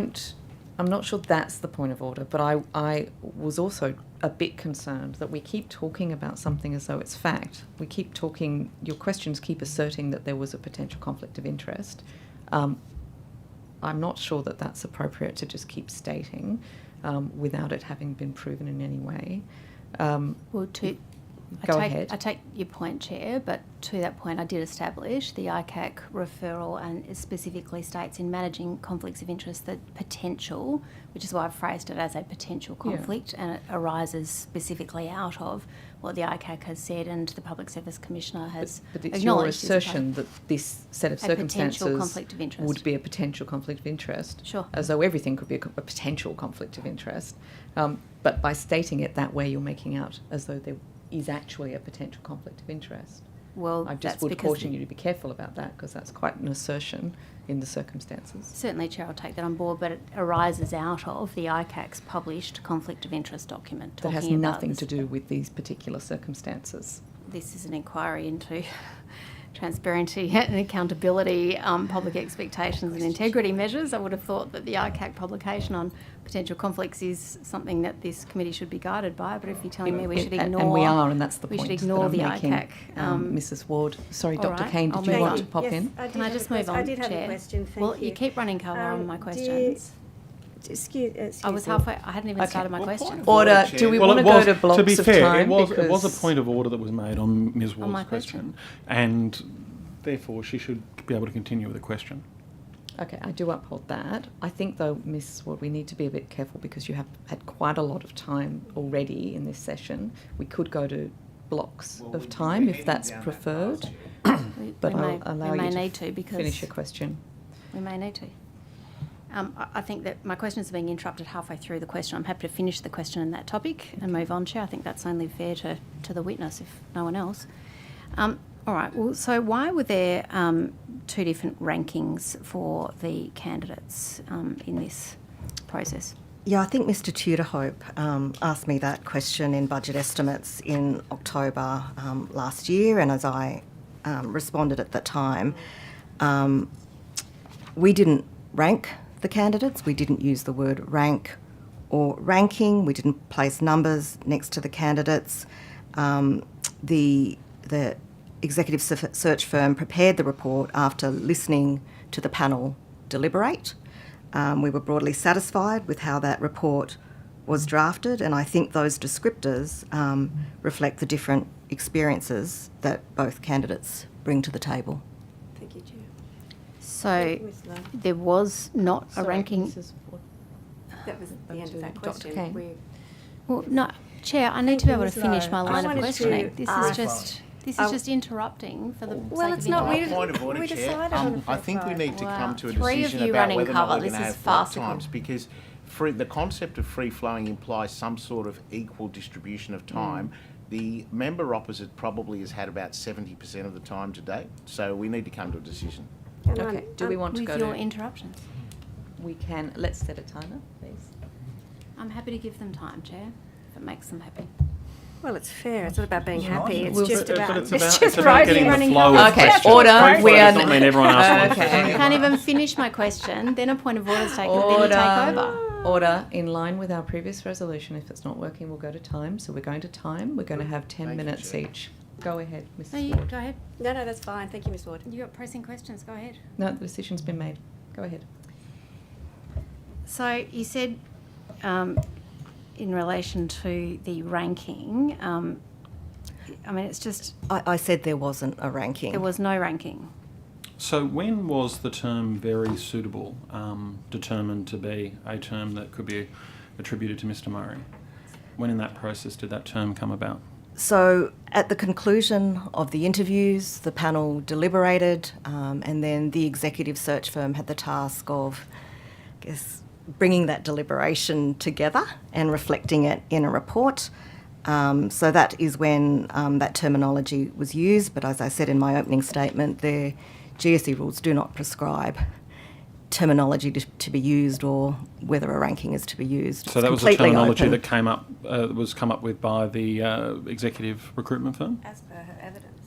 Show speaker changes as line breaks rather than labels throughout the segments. don't- I'm not sure that's the point of order, but I, I was also a bit concerned that we keep talking about something as though it's fact. We keep talking, your questions keep asserting that there was a potential conflict of interest. Um, I'm not sure that that's appropriate to just keep stating um, without it having been proven in any way. Um,
Well, to I
Go
take,
ahead.
I take your point, Chair, but to that point, I did establish the ICAC referral and it specifically states in managing conflicts of interest that potential, which is why I've phrased it as a potential
Yeah.
conflict, and it arises specifically out of what the ICAC has said and the Public Service Commissioner has
but it's your
acknowledged. is a
assertion that this set of
A potential
circumstances
conflict of interest.
would be a potential conflict of interest.
Sure.
As though everything could be a, co- a potential conflict of interest. Um, but by stating it that way, you're making out as though there is actually a potential conflict of interest.
well,
I just
that's
would
because
caution you to be careful about that because that's quite an assertion in the circumstances.
Certainly, Chair, I'll take that on board, but it arises out of the ICAC's published conflict of interest document.
That has
talking about
nothing
this-
to do with these particular circumstances.
this is an inquiry into transparency and accountability, um, public expectations and integrity measures. I would have thought that the ICAC publication on potential conflicts is something that this committee should be guided by, but if you're telling me we should
And-
ignore.
and we are, and that's the
we should
point that
ignore
I'm
the
making.
ICAC, um,
Mrs. Ward, sorry,
all
Dr.
right,
Kane,
I'll
did you
move
want
on.
to pop
Yes,
in?
I did
Can I
have a
just move
quest-
on,
I did have
Chair?
a question, thank you.
Well, you keep running cover on
Um,
my
do-
questions.
Excuse, uh, excuse
I was
me.
halfway, I hadn't even
Okay.
started my
Well, point
question.
of
Or- Order.
Chair.
Do we wanna
it
go
was-
to blocks
be
of
fair,
time
It was, it was a
because-
point of order that was made on Ms. Ward's
my question.
question, and therefore she should be able to continue with the question.
Okay, I do uphold that. I think, though, Miss Ward, we need to be a bit careful because you have had quite a lot of time already in this session. We could go to blocks of time if that's preferred.
We-
But
we
I'll
may-
allow
we
you
may
to
need to because.
Finish your question.
We may need to. Um, I, I think that my questions are being interrupted halfway through the question. I'm happy to finish the question in that topic and move on, Chair. I think that's only fair to, to the witness, if no one else. Um, all right, well, so why were there um, two different rankings for the candidates um, in this process?
Yeah, I think Mr. Tudorhope um, asked me that question in budget estimates in October um, last year, and as I um, responded at the time, um, we didn't rank the candidates. We didn't use the word rank or ranking. We didn't place numbers next to the candidates. Um, the the executive se- search firm prepared the report after listening to the panel deliberate. Um, we were broadly satisfied with how that report was drafted, and I think those descriptors um, reflect the different experiences that both candidates bring to the table.
Thank you, Chair.
So
Ms. Lowe.
there was not a ranking.
That was Ah, the end of that
Dr.
question.
Kane.
We-
Well, no, Chair, I need
Thank
to be
you,
able to
Ms.
finish my
Lowe. I
line of
wanted to
questioning. This is
ask-
just this
I-
is just interrupting for the
Well,
sake
it's
of
not, we,
interrupting.
Point of order,
we
Chair.
decided on a
Um, I think we
five.
need to
Wow.
come to a
Three of
decision
you
about
running
whether or
cover.
not we're
This
going to
is
have block
farcical.
times because free, the concept of free flowing implies some sort of equal distribution
Hmm.
of time. The member opposite probably has had about 70% of the time today, so we need to come to a decision.
And I'm-
Okay, do we
I'm-
want to
With
go
your
to?
interruptions.
We can, let's set a timer, please.
I'm happy to give them time, Chair, if it makes them happy.
Well, it's fair. It's not about being happy. It's
Well,
just
but- but
about,
it's
it's
about-
just
it's about
right
getting the
running.
flow of
cover.
Okay,
That's
order.
right.
We are-
does not mean everyone asks one
Okay.
I can't even finish my question, then a point of order is taken, then you take over.
Order, um, order, in line with our previous resolution, if it's not working, we'll go to time. So we're going to time, we're going to have ten
Thank you,
minutes
Chair.
each. Go ahead,
No,
Mrs.
you,
Ward.
go ahead.
No, no, that's fine. Thank you, Ms Ward.
You got pressing questions, go ahead.
No, the decision's been made. Go ahead.
So you said, um, in relation to the ranking, um, I mean, it's just,
I, I said there wasn't a ranking.
there was no ranking.
So when was the term very suitable um, determined to be a term that could be attributed to Mr. Murray? When in that process did that term come about?
So, at the conclusion of the interviews, the panel deliberated, um, and then the executive search firm had the task of, I guess, bringing that deliberation together and reflecting it in a report. Um, so, that is when um, that terminology was used. But as I said in my opening statement, the GSE rules do not prescribe terminology to, to be used or whether a ranking is to be used.
So
It's
that was the
completely
terminology
open.
that came up uh, was come up with by the uh, executive recruitment firm.
As per her evidence.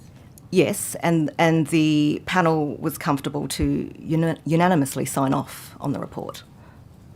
Yes, and and the panel was comfortable to uni- unanimously sign off on the report.